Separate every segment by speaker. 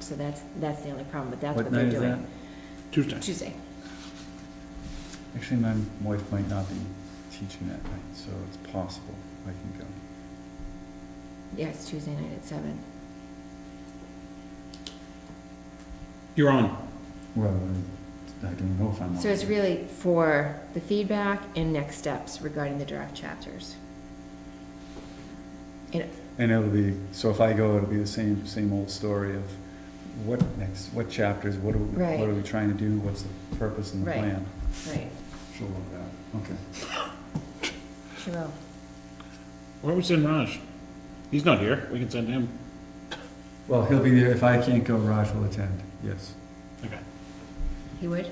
Speaker 1: so that's, that's the only problem, but that's
Speaker 2: What
Speaker 1: what they're
Speaker 2: night is
Speaker 1: doing.
Speaker 2: that?
Speaker 3: Tuesday.
Speaker 1: Tuesday.
Speaker 2: Actually, my wife might not be teaching that night, so it's possible I can go.
Speaker 1: Yeah, it's Tuesday night at seven.
Speaker 3: You're on.
Speaker 2: Well, I- I don't know if I'm.
Speaker 1: So it's really for the feedback and next steps regarding the draft chapters.
Speaker 2: And it'll be, so if I go, it'll be the same, same old story of what next, what chapters, what are, we-
Speaker 1: Right.
Speaker 2: what are we trying to do, what's the purpose and the
Speaker 1: Right.
Speaker 2: plan?
Speaker 1: Right,
Speaker 2: She'll love that. Okay.
Speaker 1: she will.
Speaker 3: Where was in Raj? He's not here. We can send him.
Speaker 2: Well, he'll be there. If I can't go, Raj will attend. Yes.
Speaker 3: Okay.
Speaker 1: He would?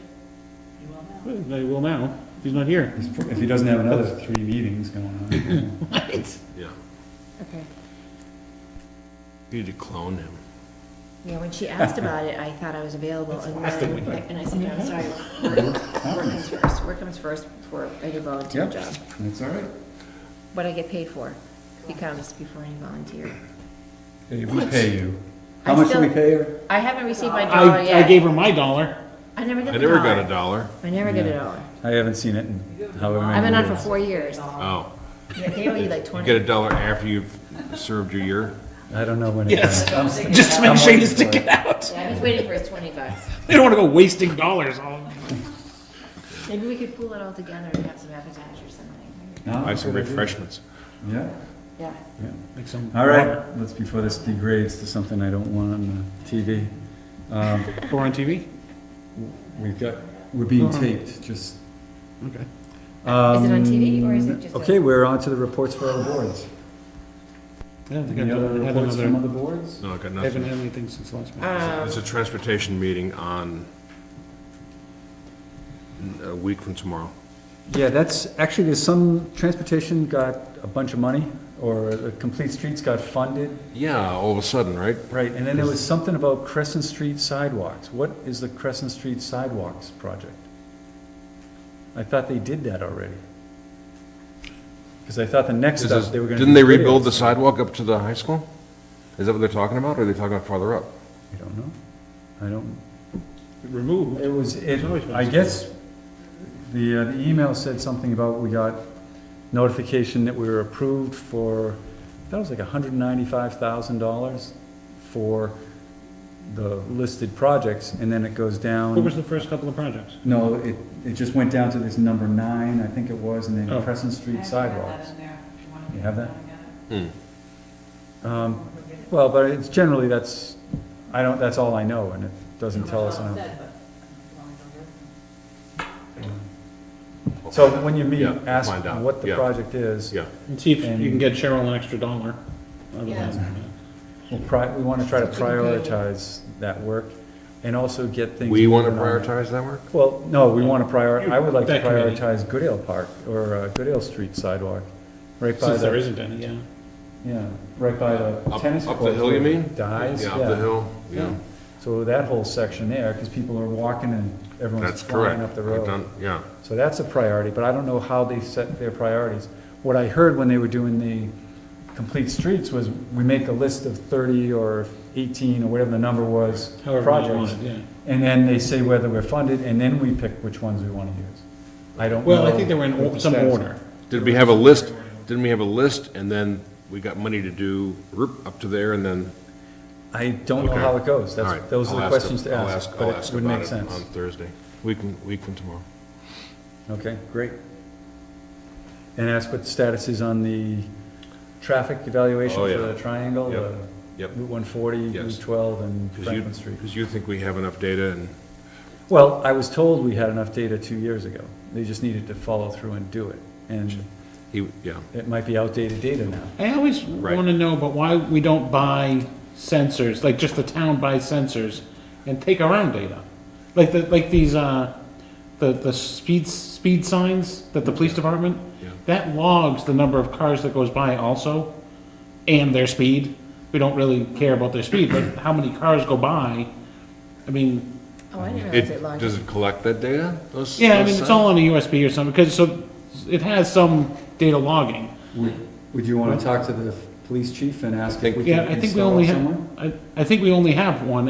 Speaker 3: Well, They will now. He's not here.
Speaker 2: He's pro- If he doesn't have another three meetings going on.
Speaker 4: Yeah,
Speaker 1: Okay.
Speaker 4: you need to clone him.
Speaker 1: Yeah, when she asked about it, I thought I was available, and then, and I said, no, I'm sorry, work comes first, work comes first before any volunteer
Speaker 2: Yep,
Speaker 1: job.
Speaker 2: that's all right.
Speaker 1: What I get paid for becomes before any volunteer.
Speaker 2: Hey, we pay you. How
Speaker 1: I
Speaker 2: much do
Speaker 1: still-
Speaker 2: we pay her?
Speaker 1: I haven't received my dollar
Speaker 3: I, I gave
Speaker 1: yet.
Speaker 3: her my dollar.
Speaker 1: I never get
Speaker 4: I
Speaker 1: the
Speaker 4: never got a
Speaker 1: dollar.
Speaker 4: dollar.
Speaker 1: I never get a
Speaker 2: Yeah.
Speaker 1: dollar.
Speaker 2: I haven't seen it in however many
Speaker 1: I've been on for
Speaker 2: years.
Speaker 1: four years.
Speaker 4: Oh,
Speaker 1: They owe you like
Speaker 4: you
Speaker 1: twenty.
Speaker 4: get a dollar after you've served your year?
Speaker 2: I don't know when it
Speaker 3: Yes.
Speaker 2: is.
Speaker 3: Just to make sure you stick it out.
Speaker 1: Yeah, I was waiting for his twenty bucks.
Speaker 3: They don't want to go wasting dollars all.
Speaker 1: Maybe we could pool it all together and have some appetizers or something.
Speaker 4: Buy some refreshments.
Speaker 2: Yeah,
Speaker 1: Yeah.
Speaker 2: yeah.
Speaker 3: Like some
Speaker 2: All right, let's, before this degrades to something I don't want on the TV. Um,
Speaker 3: Or on TV.
Speaker 2: We've got, we're being taped, just.
Speaker 3: Okay.
Speaker 1: Is it on TV or is it
Speaker 2: um,
Speaker 1: just a-
Speaker 2: Okay, we're on to the reports for other boards.
Speaker 3: I don't think I've
Speaker 2: Any other
Speaker 3: done- had
Speaker 2: reports from
Speaker 3: another.
Speaker 2: other boards?
Speaker 4: No, I
Speaker 3: I
Speaker 4: got
Speaker 3: haven't
Speaker 4: nothing.
Speaker 3: had anything since last week.
Speaker 1: Um,
Speaker 4: There's a transportation meeting on a week from tomorrow.
Speaker 2: Yeah, that's, actually, there's some, transportation got a bunch of money, or the Complete Streets got funded.
Speaker 4: Yeah, all of a sudden, right?
Speaker 2: Right, and then there was something about Crescent Street sidewalks. What is the Crescent Street sidewalks project? I thought they did that already. Because I thought the next
Speaker 4: This
Speaker 2: step,
Speaker 4: is-
Speaker 2: they were gonna.
Speaker 4: Didn't
Speaker 2: do
Speaker 4: they rebuild
Speaker 2: videos.
Speaker 4: the sidewalk up to the high school? Is that what they're talking about, or are they talking about farther up?
Speaker 2: I don't know. I don't,
Speaker 3: Uh. Removed.
Speaker 2: it was, it,
Speaker 3: It's always been
Speaker 2: I
Speaker 3: this
Speaker 2: guess, the, uh, the email said something about we got notification that we were approved for, that was like hundred and ninety-five thousand dollars for the listed projects, and then it goes down.
Speaker 3: What was the first couple of projects?
Speaker 2: No, it, it just went down to this number nine, I think it was, and
Speaker 3: Oh.
Speaker 2: then Crescent Street sidewalks. You have that?
Speaker 4: Hmm.
Speaker 2: Um, well, but it's generally, that's, I don't, that's all I know, and it doesn't tell us. enough. So when you meet,
Speaker 4: Yeah,
Speaker 2: ask
Speaker 4: find out,
Speaker 2: what the
Speaker 4: yeah.
Speaker 2: project is.
Speaker 4: Yeah,
Speaker 3: And see if
Speaker 2: And-
Speaker 3: you can get Cheryl an extra dollar. Otherwise, uh,
Speaker 1: Yeah.
Speaker 2: We'll pri, we wanna try to
Speaker 1: Something good.
Speaker 2: prioritize that work, and also get things.
Speaker 4: we want to
Speaker 2: moving on.
Speaker 4: prioritize that work?
Speaker 2: Well, no, we wanna prior, I would like to
Speaker 3: That committee.
Speaker 2: prioritize Goodale Park, or uh, Goodale Street sidewalk, right by
Speaker 3: Since there
Speaker 2: the,
Speaker 3: isn't any, yeah.
Speaker 2: yeah, right by the
Speaker 4: Up-
Speaker 2: tennis court.
Speaker 4: up the hill, you mean?
Speaker 2: Dies,
Speaker 4: Yeah, up the
Speaker 2: yeah.
Speaker 4: hill, yeah.
Speaker 2: So that whole section there, because people are walking and everyone's
Speaker 4: That's
Speaker 2: flying
Speaker 4: correct.
Speaker 2: up the
Speaker 4: I've
Speaker 2: road.
Speaker 4: done- Yeah,
Speaker 2: So that's a priority, but I don't know how they set their priorities. What I heard when they were doing the complete streets was, we make a list of thirty or eighteen or whatever the number was,
Speaker 3: However you
Speaker 2: projects.
Speaker 3: want it, yeah.
Speaker 2: And then they say whether we're funded, and then we pick which ones we wanna use. I don't know.
Speaker 3: Well, I think they were in
Speaker 2: what the
Speaker 3: or- some
Speaker 2: status-
Speaker 3: order.
Speaker 4: Did we have a list, didn't we have a list, and then we got money to do roop up to there, and then,
Speaker 2: I don't know
Speaker 4: Okay.
Speaker 2: how it goes.
Speaker 4: all
Speaker 2: That's,
Speaker 4: right.
Speaker 2: those are
Speaker 4: I'll
Speaker 2: the
Speaker 4: ask
Speaker 2: questions
Speaker 4: ab-
Speaker 2: to
Speaker 4: I'll
Speaker 2: ask,
Speaker 4: I'll
Speaker 2: but it
Speaker 4: ask
Speaker 2: would
Speaker 4: about
Speaker 2: make
Speaker 4: it On
Speaker 2: sense.
Speaker 4: Thursday, week, from- week from tomorrow.
Speaker 2: Okay, great. And ask what the status is on the traffic evaluation
Speaker 4: Oh,
Speaker 2: for
Speaker 4: yeah.
Speaker 2: the triangle,
Speaker 4: Yep,
Speaker 2: the
Speaker 4: yep.
Speaker 2: Route one forty,
Speaker 4: Yes.
Speaker 2: Route twelve, and
Speaker 4: Because you,
Speaker 2: Franklin Street.
Speaker 4: because you think we have enough data, and
Speaker 2: Well, I was told we had enough data two years ago. They just needed to follow through and do it. And
Speaker 4: he, yeah,
Speaker 2: it might be outdated data now.
Speaker 3: I always
Speaker 4: Right.
Speaker 3: want to know about why we don't buy sensors, like just the town buys sensors and take our own data. Like the, like these, uh, the, the speed, speed signs that the police department,
Speaker 4: Yeah.
Speaker 3: that logs the number of cars that goes by also and their speed. We don't really care about their speed, but how many cars go by, I mean,
Speaker 1: Oh, I didn't realize
Speaker 4: it,
Speaker 1: it logged.
Speaker 4: does it collect that data? Those-
Speaker 3: yeah, I
Speaker 4: those
Speaker 3: mean, it's
Speaker 4: signs?
Speaker 3: all on a USB or something, because so, it has some data logging.
Speaker 2: Would you want to talk to the police chief and ask if we
Speaker 3: Yeah,
Speaker 2: can
Speaker 3: I think we only
Speaker 2: install it somewhere?
Speaker 3: have, I, I think we only have one